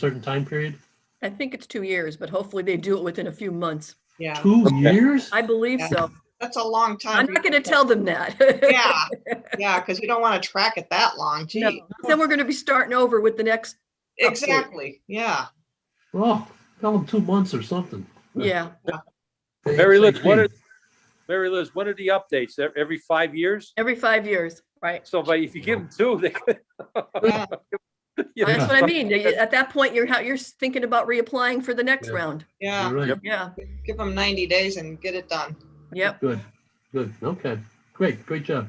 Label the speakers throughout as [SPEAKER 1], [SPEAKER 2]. [SPEAKER 1] certain time period?
[SPEAKER 2] I think it's two years, but hopefully they do it within a few months.
[SPEAKER 3] Yeah,
[SPEAKER 1] Two
[SPEAKER 4] Okay.
[SPEAKER 1] years?
[SPEAKER 2] I believe
[SPEAKER 3] Yeah.
[SPEAKER 2] so.
[SPEAKER 3] that's a long time.
[SPEAKER 2] I'm not going to
[SPEAKER 3] people-
[SPEAKER 2] tell them that.
[SPEAKER 3] Yeah, yeah, because you don't want to track it that long.
[SPEAKER 2] No.
[SPEAKER 3] Gee,
[SPEAKER 2] Then we're going to be starting over with the next,
[SPEAKER 3] exactly. Yeah.
[SPEAKER 1] Well, tell them two months or something.
[SPEAKER 2] yeah.
[SPEAKER 4] Mary Liz, what are,
[SPEAKER 1] ASAP.
[SPEAKER 4] Mary Liz, what are the updates? Ev- Every five years?
[SPEAKER 2] Every five years, right?
[SPEAKER 4] So but if you give them two, they.
[SPEAKER 3] Yeah.
[SPEAKER 4] You know,
[SPEAKER 2] That's what I
[SPEAKER 4] so-
[SPEAKER 2] mean. They- At that point, you're, ha- you're thinking about reapplying for the next
[SPEAKER 1] Yeah.
[SPEAKER 2] round.
[SPEAKER 3] Yeah.
[SPEAKER 1] You're right.
[SPEAKER 4] Yep.
[SPEAKER 2] Yeah,
[SPEAKER 3] Give them 90 days and get it done.
[SPEAKER 2] yep.
[SPEAKER 1] Good, good. Okay, great, great job.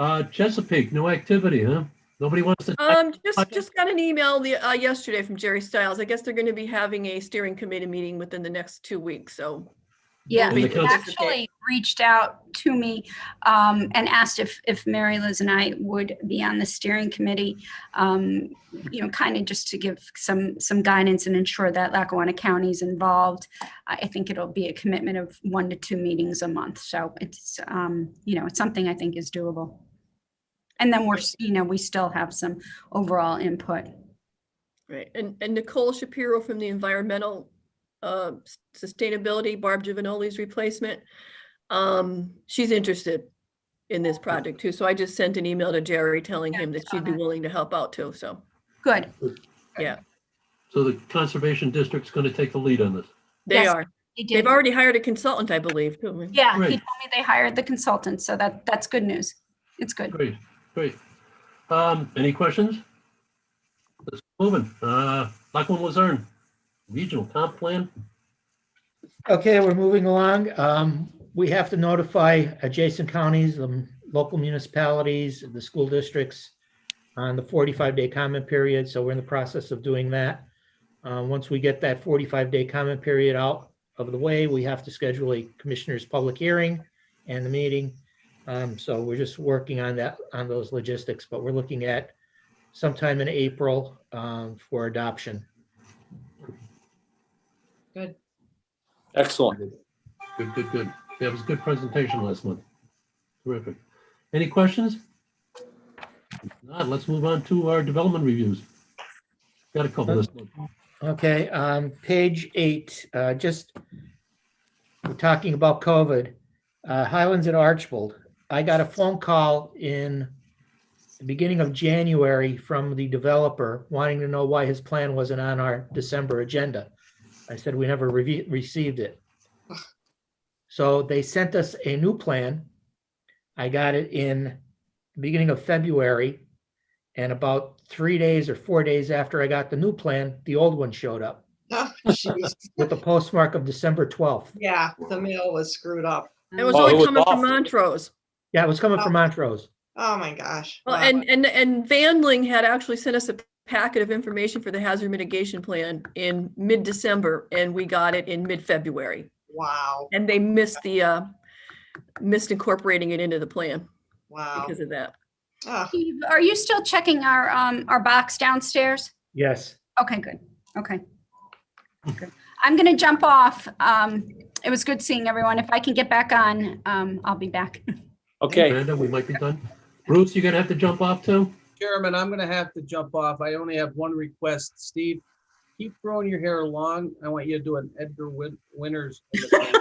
[SPEAKER 1] Uh, Chesapeake, no activity, huh? Nobody wants to.
[SPEAKER 2] Um, just,
[SPEAKER 1] Okay.
[SPEAKER 2] just got an email the, uh, yesterday from Jerry Stiles. I guess they're going to be having a steering committee meeting within the next two weeks, so.
[SPEAKER 5] Yeah,
[SPEAKER 1] And the
[SPEAKER 5] he
[SPEAKER 1] council-
[SPEAKER 5] actually reached out to me um, and asked if, if Mary Liz and I would be on the steering committee, um, you know, kind of just to give some, some guidance and ensure that Lackawanna County is involved. I I think it'll be a commitment of one to two meetings a month. So it's, um, you know, it's something I think is doable. And then we're, you know, we still have some overall input.
[SPEAKER 2] Right, and, and Nicole Shapiro from the Environmental uh, S- Sustainability, Barb Giovanoli's replacement. um, She's interested in this project too, so I just sent an email to Jerry telling
[SPEAKER 5] Yeah,
[SPEAKER 2] him that
[SPEAKER 5] saw
[SPEAKER 2] she'd be
[SPEAKER 5] that.
[SPEAKER 2] willing to help out too, so.
[SPEAKER 5] Good.
[SPEAKER 1] So the Conservation District's going to take the lead on this.
[SPEAKER 2] They
[SPEAKER 5] Yes,
[SPEAKER 2] are,
[SPEAKER 5] They did.
[SPEAKER 2] they've already hired a consultant, I believe, too.
[SPEAKER 5] Yeah, he told
[SPEAKER 1] Great.
[SPEAKER 5] me they hired the consultant. So that, that's good news. It's good.
[SPEAKER 1] Great, great. Um, any questions? Let's keep moving. Uh, Lachlan Luzerne, Regional Comp Plan.
[SPEAKER 6] Okay, we're moving along. Um, we have to notify adjacent counties, um, local municipalities, the school districts on the forty-five day comment period, so we're in the process of doing that. Uh, once we get that forty-five day comment period out of the way, we have to schedule a commissioner's public hearing and the meeting. Um, so we're just working on that, on those logistics, but we're looking at sometime in April, um, for adoption.
[SPEAKER 4] Excellent.
[SPEAKER 1] Good, good, good. That was a good presentation last month. Terrific. Any questions? If Not, let's move on to our development reviews. Got a couple this month.
[SPEAKER 6] Okay, um, page eight, uh, just we're talking about COVID, uh, Highlands and Archbold. I got a phone call in the beginning of January from the developer wanting to know why his plan wasn't on our December agenda. I said, we never revi- received it. So they sent us a new plan. I got it in the beginning of February. And about three days or four days after I got the new plan, the old one showed up
[SPEAKER 3] Jeez.
[SPEAKER 6] with the postmark of December 12th.
[SPEAKER 3] Yeah, the mail was screwed up.
[SPEAKER 2] It was
[SPEAKER 4] Oh, it
[SPEAKER 2] only
[SPEAKER 4] was
[SPEAKER 2] coming from
[SPEAKER 4] awful.
[SPEAKER 2] Montrose.
[SPEAKER 6] Yeah, it was coming from Montrose.
[SPEAKER 3] Oh, my gosh.
[SPEAKER 2] Well,
[SPEAKER 3] Wow.
[SPEAKER 2] and, and, and Vanling had actually sent us a packet of information for the hazard mitigation plan in mid-December, and we got it in mid-February.
[SPEAKER 3] Wow,
[SPEAKER 2] And they missed the, uh, missed incorporating it into the plan
[SPEAKER 3] wow.
[SPEAKER 2] because of that.
[SPEAKER 3] Ah,
[SPEAKER 5] Steve, are you still checking our, um, our box downstairs?
[SPEAKER 6] Yes.
[SPEAKER 5] Okay, good. Okay. Good. I'm gonna jump off. Um, it was good seeing everyone. If I can get back on, um, I'll be back.
[SPEAKER 4] Okay,
[SPEAKER 1] Brandon, we might be done. Bruce, you're gonna have to jump off too?
[SPEAKER 7] Chairman, I'm gonna have to jump off. I only have one request. Steve, keep growing your hair long. I want you to do an Edgar Win- Winters. imitation.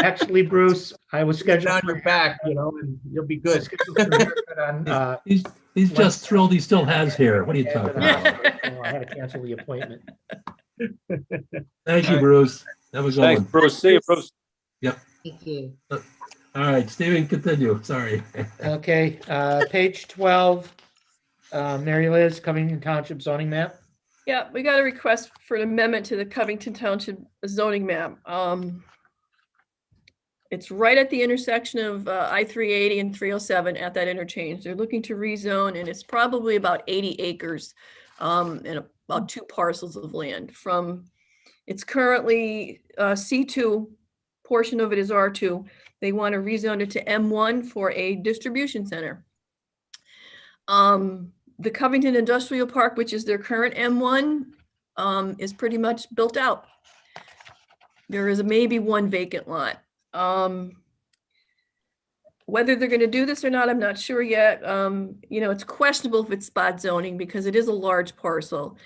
[SPEAKER 6] Actually, Bruce, I was scheduled.
[SPEAKER 7] Down your back, you know, and you'll be good.
[SPEAKER 6] scheduled for haircut on, uh,
[SPEAKER 1] He's, he's just thrilled he still has hair. What are you talking about?
[SPEAKER 6] uh, oh, I had to cancel the appointment.
[SPEAKER 1] Thank you, Bruce. That was all.
[SPEAKER 4] thanks,
[SPEAKER 1] All
[SPEAKER 4] Bruce. See you, Bruce.
[SPEAKER 1] right, Stephen, continue. Sorry.
[SPEAKER 6] Okay, uh, page 12, uh, Mary Liz, Covington Township zoning map.
[SPEAKER 2] Yeah, we got a request for an amendment to the Covington Township zoning map. Um, It's right at the intersection of uh, I-380 and 307 at that interchange. They're looking to rezone and it's probably about 80 acres um, and about two parcels of land from, it's currently uh, C2, portion of it is R2. They want to rezone it to M1 for a distribution center. Um, the Covington Industrial Park, which is their current M1, um, is pretty much built out. There is maybe one vacant lot. Um, Whether they're going to do this or not, I'm not sure yet. Um, You know, it's questionable if it's spot zoning because it is a large parcel.